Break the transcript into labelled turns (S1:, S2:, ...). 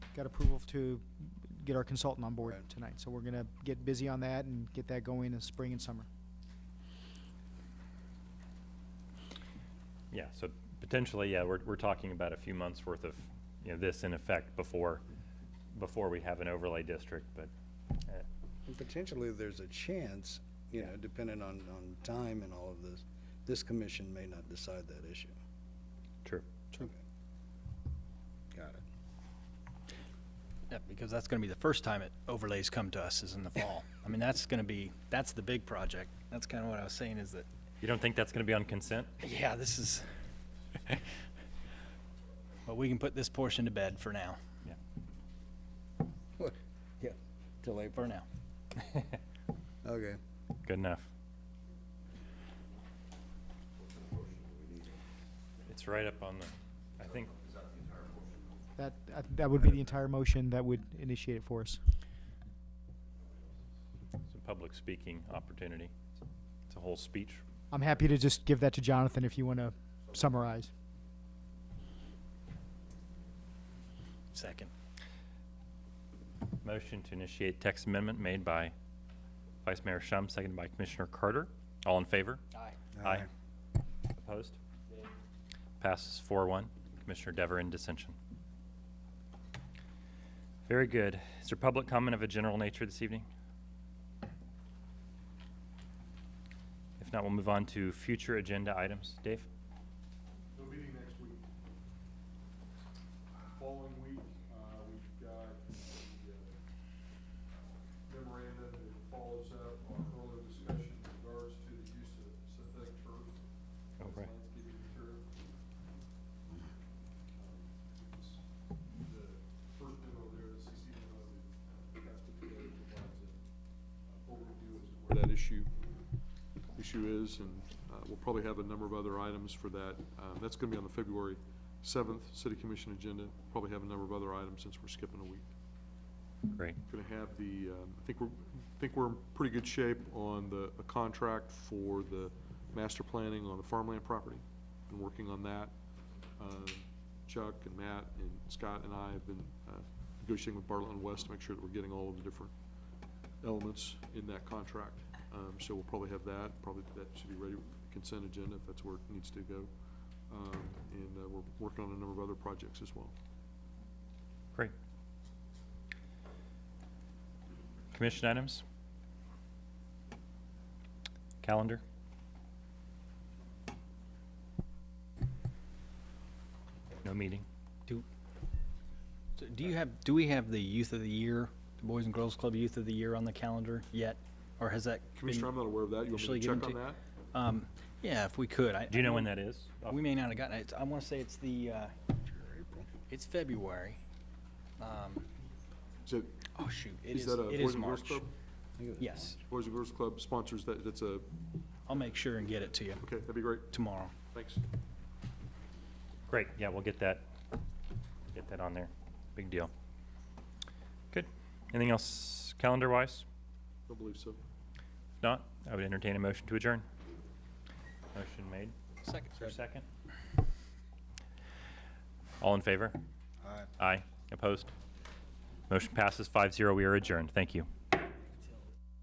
S1: got approval to get our consultant on board
S2: Right.
S1: tonight. So we're gonna get busy on that and get that going in spring and summer.
S3: Yeah, so potentially, yeah, we're, we're talking about a few months' worth of, you know, this in effect before, before we have an overlay district, but, uh,
S2: And potentially, there's a chance, you know, depending on, on time and all of this, this commission may not decide that issue.
S3: true.
S2: Got it.
S4: Yeah, because that's gonna be the first time it overlays come to us is in the fall. I mean, that's gonna be, that's the big project. That's kinda what I was saying is that,
S3: You don't think that's gonna be on consent?
S4: yeah, this is. But we can put this portion to bed for now,
S3: Yeah.
S2: Yeah.
S4: till April. For now.
S2: Okay.
S3: Good enough. It's right up on the, I think,
S1: That, that- that would be the entire motion that would initiate it for us.
S3: it's a public speaking opportunity. It's a whole speech.
S1: I'm happy to just give that to Jonathan if you wanna summarize.
S4: Second.
S3: Motion to initiate text amendment made by Vice Mayor Shum, seconded by Commissioner Carter. All in favor?
S4: Aye.
S3: Aye. Opposed? Passes four one. Commissioner Dever in dissension. Very good. Is there public comment of a general nature this evening? If not, we'll move on to future agenda items. Dave?
S5: No meeting next week. Following week, uh, we've got the uh, memorandum that follows up our earlier discussion in regards to the use of synthetic turf. as
S3: Okay.
S5: Landscaping material. Um, it's The first memo there, the CC memo that that's put together provides a uh, overview as to where that issue issue is, and uh, we'll probably have a number of other items for that. Um, That's going to be on the February 7th City Commission agenda. Probably have a number of other items since we're skipping a week.
S3: Great.
S5: Going to have the, um, I think we're, I think we're in pretty good shape on the, a contract for the master planning on the farmland property. Been working on that. Uh, Chuck and Matt and Scott and I have been uh, negotiating with Bartlett and West to make sure that we're getting all of the different elements in that contract. Um, So we'll probably have that, probably that should be ready with consent agenda if that's where it needs to go. Um, And uh, we're working on a number of other projects as well.
S3: Great. Commission items? Calendar? No meeting?
S4: Do, so do you have, do we have the youth of the year, the Boys and Girls Club Youth of the Year on the calendar yet? Or has that been?
S5: Commissioner, I'm not aware of that. You want me
S4: officially
S5: to check
S4: given
S5: on that?
S4: Um, yeah, if we could. I-
S3: Do you
S4: I
S3: know
S4: don't-
S3: when that is? Off-
S4: We may not have gotten it. I want to say it's the, uh, it's February. Um,
S5: Is it,
S4: oh, shoot, it
S5: is
S4: is,
S5: that a
S4: it
S5: Boys
S4: is
S5: and Girls
S4: March.
S5: Club?
S4: Yes,
S5: Boys and Girls Club sponsors that, that's a,
S4: I'll make sure and get it to you
S5: okay, that'd be great.
S4: tomorrow.
S5: Thanks.
S3: Great, yeah, we'll get that, get that on there. Big deal. Good. Anything else calendar-wise?
S5: I believe so.
S3: If not, I would entertain a motion to adjourn. Motion made.
S4: Second.
S3: Is there a second? All in favor?
S2: Aye.
S3: Aye. Opposed? Motion passes 5-0. We are adjourned. Thank you.